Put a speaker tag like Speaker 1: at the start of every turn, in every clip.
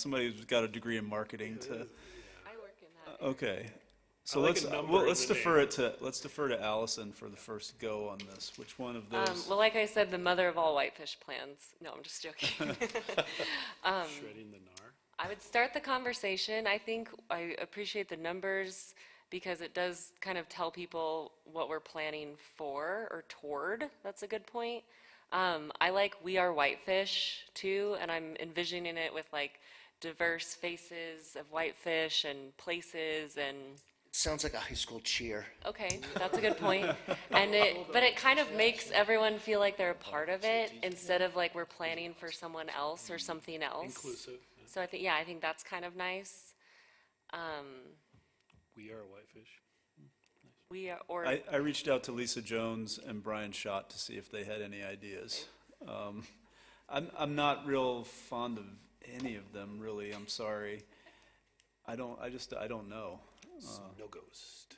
Speaker 1: somebody who's got a degree in marketing to,
Speaker 2: I work in that.
Speaker 1: okay. So
Speaker 3: I like
Speaker 1: let's,
Speaker 3: a
Speaker 1: uh,
Speaker 3: number
Speaker 1: well,
Speaker 3: in
Speaker 1: let's
Speaker 3: the
Speaker 1: defer
Speaker 3: name.
Speaker 1: it to, let's defer to Allison for the first go on this. Which one of
Speaker 2: Um,
Speaker 1: those?
Speaker 2: well, like I said, the mother of all whitefish plans. No, I'm just joking. Um,
Speaker 3: Shredding the NAR?
Speaker 2: I would start the conversation. I think I appreciate the numbers because it does kind of tell people what we're planning for or toward. That's a good point. Um, I like We Are Whitefish too, and I'm envisioning it with like diverse faces of whitefish and places and
Speaker 4: Sounds like a high school cheer.
Speaker 2: Okay, that's a good point. And it, but it kind of makes everyone feel like they're a part of it instead of like we're planning for someone else or something else.
Speaker 3: Inclusive, yeah.
Speaker 2: So I think, yeah, I think that's kind of nice. Um,
Speaker 3: We are whitefish.
Speaker 2: we are, or,
Speaker 1: I, I reached out to Lisa Jones and Brian Schott to see if they had any ideas. Um, I'm, I'm not real fond of any of them, really, I'm sorry. I don't, I just, I don't know.
Speaker 3: No ghost.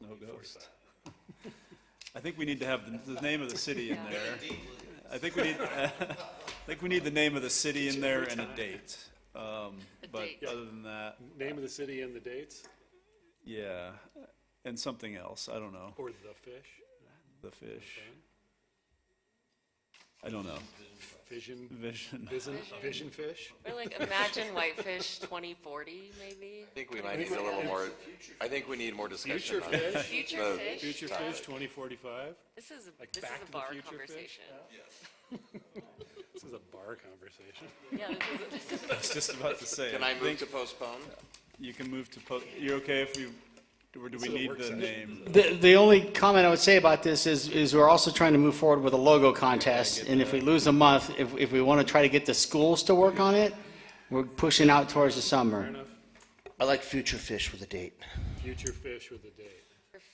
Speaker 1: No ghost. I think we need to have the, the name of the city in there. I think we need, I think we need the name of the city in there and a date. Um, but
Speaker 2: date.
Speaker 1: other than that,
Speaker 3: Name of the city and the dates,
Speaker 1: yeah, and something else, I don't know,
Speaker 3: or the fish,
Speaker 1: the fish. I don't know,
Speaker 3: vision,
Speaker 1: vision.
Speaker 3: vision, vision fish?
Speaker 2: or like imagine whitefish twenty forty maybe.
Speaker 5: I think we might need a little more, I think we need more discussion
Speaker 3: Future
Speaker 5: on it.
Speaker 3: fish?
Speaker 2: Future
Speaker 5: Uh,
Speaker 2: fish,
Speaker 3: Future fish, twenty forty-five?
Speaker 2: this is, a-
Speaker 3: like
Speaker 2: this is
Speaker 3: Back to
Speaker 2: a
Speaker 3: the
Speaker 2: bar
Speaker 3: Future fish?
Speaker 2: conversation.
Speaker 3: This is a bar conversation.
Speaker 2: Yeah, this is, this is,
Speaker 1: I was just about to say.
Speaker 5: Can I move
Speaker 1: think
Speaker 5: to postpone?
Speaker 1: You can move to, po- you're okay if we, or do we
Speaker 3: a
Speaker 1: need
Speaker 3: work
Speaker 1: the
Speaker 3: session.
Speaker 1: name?
Speaker 6: The, the only comment I would say about this is, is we're also trying to move forward with a logo contest, and if we lose a month, if, if we want to try to get the schools to work on it, we're pushing out towards the summer.
Speaker 4: I like future fish with a date.
Speaker 3: Future fish with a date,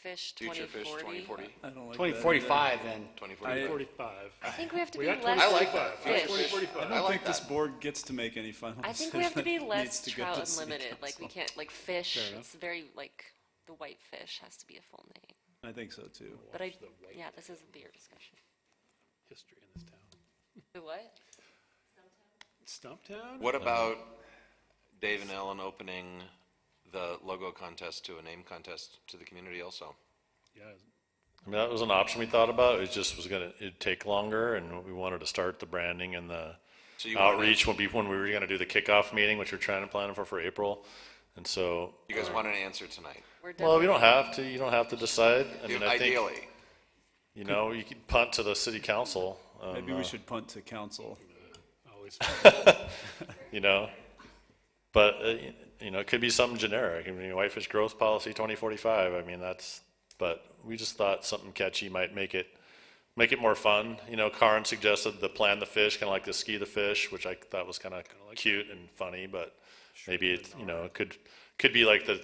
Speaker 2: fish twenty
Speaker 5: Future fish,
Speaker 2: forty.
Speaker 5: 2040,
Speaker 1: I don't like that.
Speaker 6: Twenty forty-five, then.
Speaker 5: 2040.
Speaker 3: forty-five.
Speaker 2: I think we have to
Speaker 3: We
Speaker 2: be
Speaker 3: got
Speaker 2: less.
Speaker 3: 2045. We got
Speaker 2: fish.
Speaker 3: 2045.
Speaker 1: I don't think this board gets to make any final
Speaker 2: I
Speaker 1: decision.
Speaker 2: think we have to be
Speaker 1: It needs
Speaker 2: less
Speaker 1: to go to
Speaker 2: trout
Speaker 1: city
Speaker 2: unlimited, like we
Speaker 1: council.
Speaker 2: can't, like fish, it's very, like, the white fish has to be a full name.
Speaker 1: I think so too.
Speaker 2: But I, yeah, this is a beer discussion.
Speaker 3: history in this town.
Speaker 2: The what?
Speaker 3: Stumptown?
Speaker 5: What about Dave and Ellen opening the logo contest to a name contest to the community also?
Speaker 3: Yeah,
Speaker 7: I mean, that was an option we thought about. It just was gonna, it'd take longer and we wanted to start the branding and the
Speaker 5: So you wanna-
Speaker 7: outreach when, be- when we were gonna do the kickoff meeting, which we're trying to plan for, for April. And so,
Speaker 5: You guys want an answer tonight?
Speaker 2: We're done.
Speaker 7: well, we don't have to, you don't have to decide. I mean, I think,
Speaker 5: Ideally,
Speaker 7: you know, you could punt to the city council, um,
Speaker 1: Maybe we should punt to council.
Speaker 3: always,
Speaker 7: you know? But, uh, y- you know, it could be something generic. I mean, Whitefish Growth Policy twenty forty-five, I mean, that's, but we just thought something catchy might make it, make it more fun. You know, Karin suggested the plan the fish, kinda like the ski the fish, which I thought was kinda cute and funny, but maybe it, you know, it could, could be like the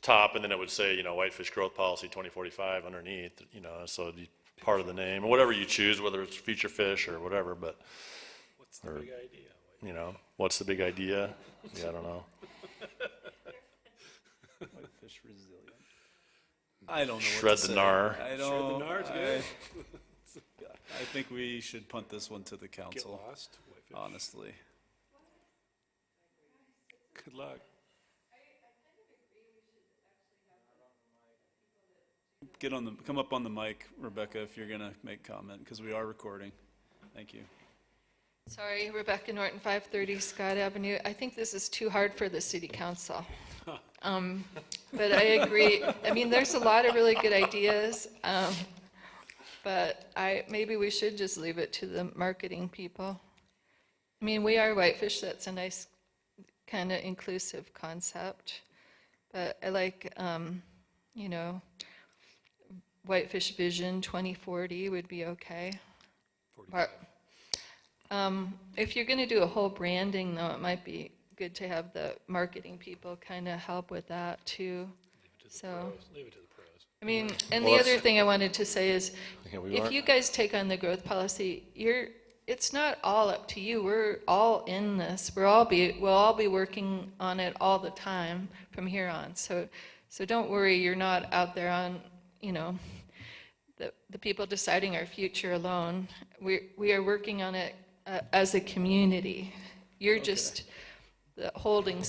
Speaker 7: top and then it would say, you know, Whitefish Growth Policy twenty forty-five underneath, you know, so it'd be part of the name, or whatever you choose, whether it's future fish or whatever, but,
Speaker 3: what's the big idea?
Speaker 7: you know, what's the big idea? Yeah, I don't know.
Speaker 1: Fish resilient. I don't know what to
Speaker 7: Shred the
Speaker 1: say.
Speaker 7: nar.
Speaker 1: I
Speaker 3: The
Speaker 1: don't,
Speaker 3: NAR's
Speaker 1: I,
Speaker 3: good.
Speaker 1: I think we should punt this one to the
Speaker 3: Get
Speaker 1: council,
Speaker 3: lost. Whitefish.
Speaker 1: honestly.
Speaker 3: Good luck.
Speaker 1: Get on the, come up on the mic, Rebecca, if you're gonna make comment, because we are recording. Thank you.
Speaker 8: Sorry, Rebecca Norton, 530 Scott Avenue. I think this is too hard for the city council. Um, But I agree, I mean, there's a lot of really good ideas, um, but I, maybe we should just leave it to the marketing people. I mean, we are Whitefish, that's a nice, kind of inclusive concept, but I like, um, you know, Whitefish Vision 2040 would be okay. Or- um, If you're going to do a whole branding, though, it might be good to have the marketing people kind of help with that, too. So,
Speaker 3: Leave it to the pros.
Speaker 8: I mean, and the
Speaker 7: Well, that's-
Speaker 8: other thing I wanted to say is,
Speaker 7: Yeah, we
Speaker 8: if
Speaker 7: aren't-
Speaker 8: you guys take on the growth policy, you're, it's not all up to you. We're all in this. We're all be, we'll all be working on it all the time from here on. So, so don't worry, you're not out there on, you know, the, the people deciding our future alone. We, we are working on it uh, as a community. You're just the holding